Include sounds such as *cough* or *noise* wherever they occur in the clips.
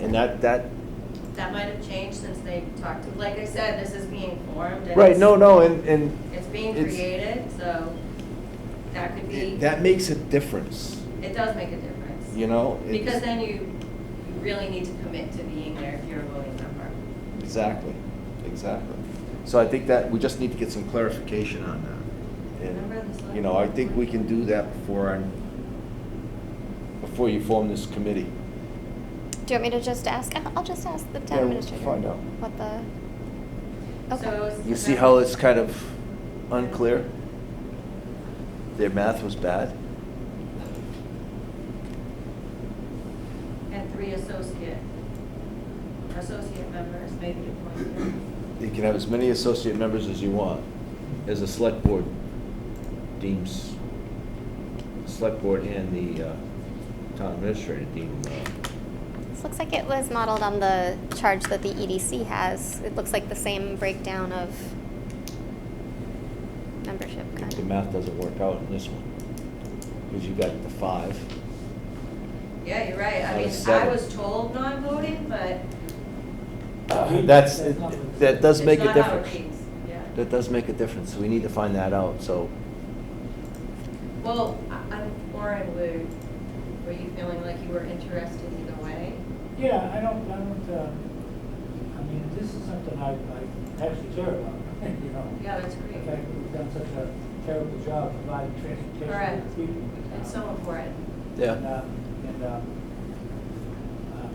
And that, that, That might have changed since they talked to, like I said, this is being formed. and right, it's- no, no, and, and It's being It's- created, so that could be, it- that makes a difference, it does make a difference. you know? It's- Because then you, you really need to commit to being there if you're a voting member. Exactly, exactly. So I think that, we just need to get some clarification on that. Remember the And, select you know, I board? think we can do that before I, before you form this committee. Do you want me to just ask? I'll- I'll just ask the Yeah, town administrator. find out. What the? So Okay. it's- You see how it's kind of unclear? Their math was bad? And three associate, associate members may be appointed. You can have as many associate members as you want, as the select board deems, select board and the uh, town administrator deem. uh, This looks like it was modeled on the charge that the EDC has. It looks like the same breakdown of membership I kind think The of. math doesn't work out in this one, because you got the five. Yeah, you're right. Out I of mean, I seven. was told non-voting, but Uh, That's, that does it's make a not how it difference. reads. Yeah. That does make a difference, so we need to find that out, so. Well, I- I'm, Warren, were, were you feeling like you were interested either way? Yeah, I don't, I don't, uh, I mean, this is something I, I actually care about, *laughs* you know. Yeah, that's The great. fact that we've done such a terrible job providing transportation Correct. to the people in the It's town. so important. And, uh, and, um, um,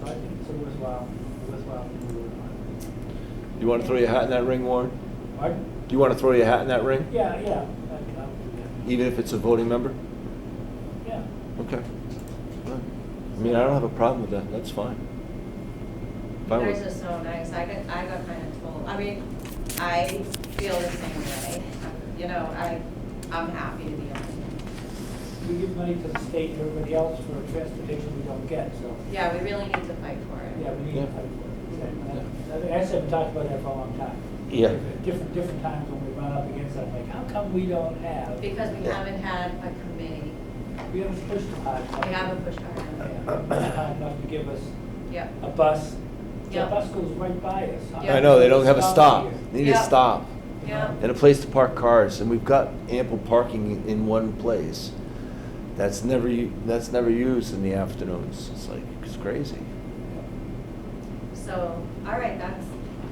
so I think it's a worthwhile, worthwhile thing to work on. You want to throw your hat in that ring, Warren? Pardon? Do you want to throw your hat in that ring? Yeah, yeah, I, I'll do that. Even if it's a voting member? Yeah, Okay. Fine. I mean, I don't have a problem with that, that's fine. You If I were- guys are so nice. I got, I got kind of told, I mean, I feel the same way. You know, I, I'm happy to be on. it. we give money to the state and everybody else for transportation we don't get, so. Yeah, we really need to fight for Yeah, it. we need to Yeah. fight for it. Exactly. I think I said, we talked about that for a long time. Yeah. Different, different times when we run up against that, like, how come we don't have, Because we Yeah. haven't had a committee. we haven't pushed hard enough. We haven't pushed hard enough. Yeah, not Hard enough to give us Yeah. a bus. The Yeah. bus goes right by us. How Yeah. I know, they don't have a stop, here? they need a Yeah. stop, Yeah. and a place to park cars, and we've got ample parking in- in one place. That's never, u- that's never used in the afternoons, it's like, it's crazy. So, all right, that's.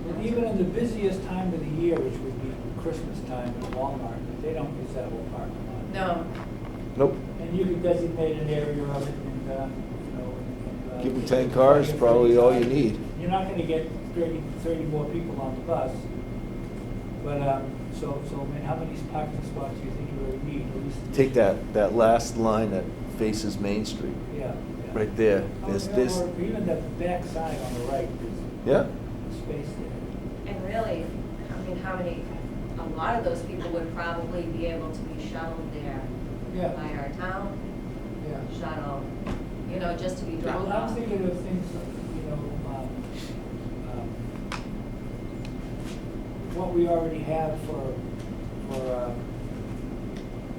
And Even in the busiest time of the year, which would be Christmas time at Walmart, they don't use that whole parking lot. No, Nope, And you could designate an area of it and, uh, you know, and, uh. Give 'em 10 cars, probably all you need. You're not gonna get 30 30 more people on the bus, but, um, so, so, man, how many parking spots do you think you really need, at least? take that, that last line that faces Main Street, Yeah. yeah. right there, Oh, there's yeah, this, or Even the back side on the right, there's yeah? space there. and really, I mean, how many, a lot of those people would probably be able to be shuttled there by Yeah, our town yeah. shuttle, you know, just to be dropped Well, I'm off. thinking of things, you know, um, um, what we already have for, for um,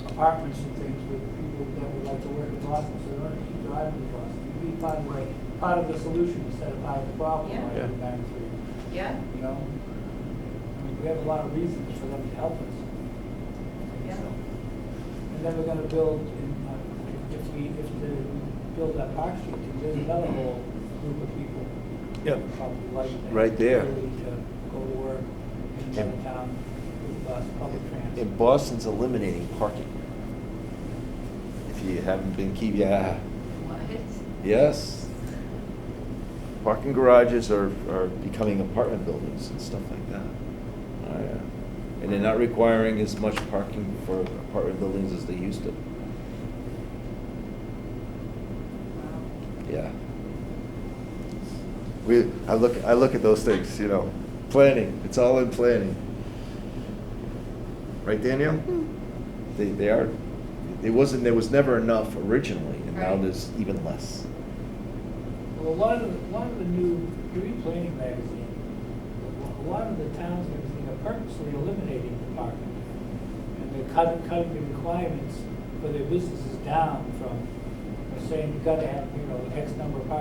apartments and things with people that would like to work in Boston, so they don't keep driving to Boston. It'd Be part of, the- part of the solution instead of part of the problem, Yeah. like Yeah. in Bangor, Yeah, you know? I mean, We have a lot of reasons for them to help us. Yeah. So, And then we're gonna build, in, uh, if we, if the, we build that Park Street, then there's another whole group of people Yep. who probably like that. Right there. ability to go to work in And- another town with bus, public transit. And Boston's eliminating parking. If you haven't been keep, yeah, what? Yes. Parking garages are, are becoming apartment buildings and stuff like that. Oh, yeah. And they're not requiring as much parking for apartment buildings as they used to. Wow. Yeah. We, I look, I look at those things, you know, planning, it's all in planning. Right, Danielle? Hmm. They, they are, it wasn't, there was never enough originally, and now Right. there's even less. Well, a lot of, the- a lot of the new, you read Planning Magazine, a lot of the towns and everything are purposely eliminating the parking. And they're cutting, cutting the requirements for their businesses down from, they're saying you gotta have, you know, X number of parking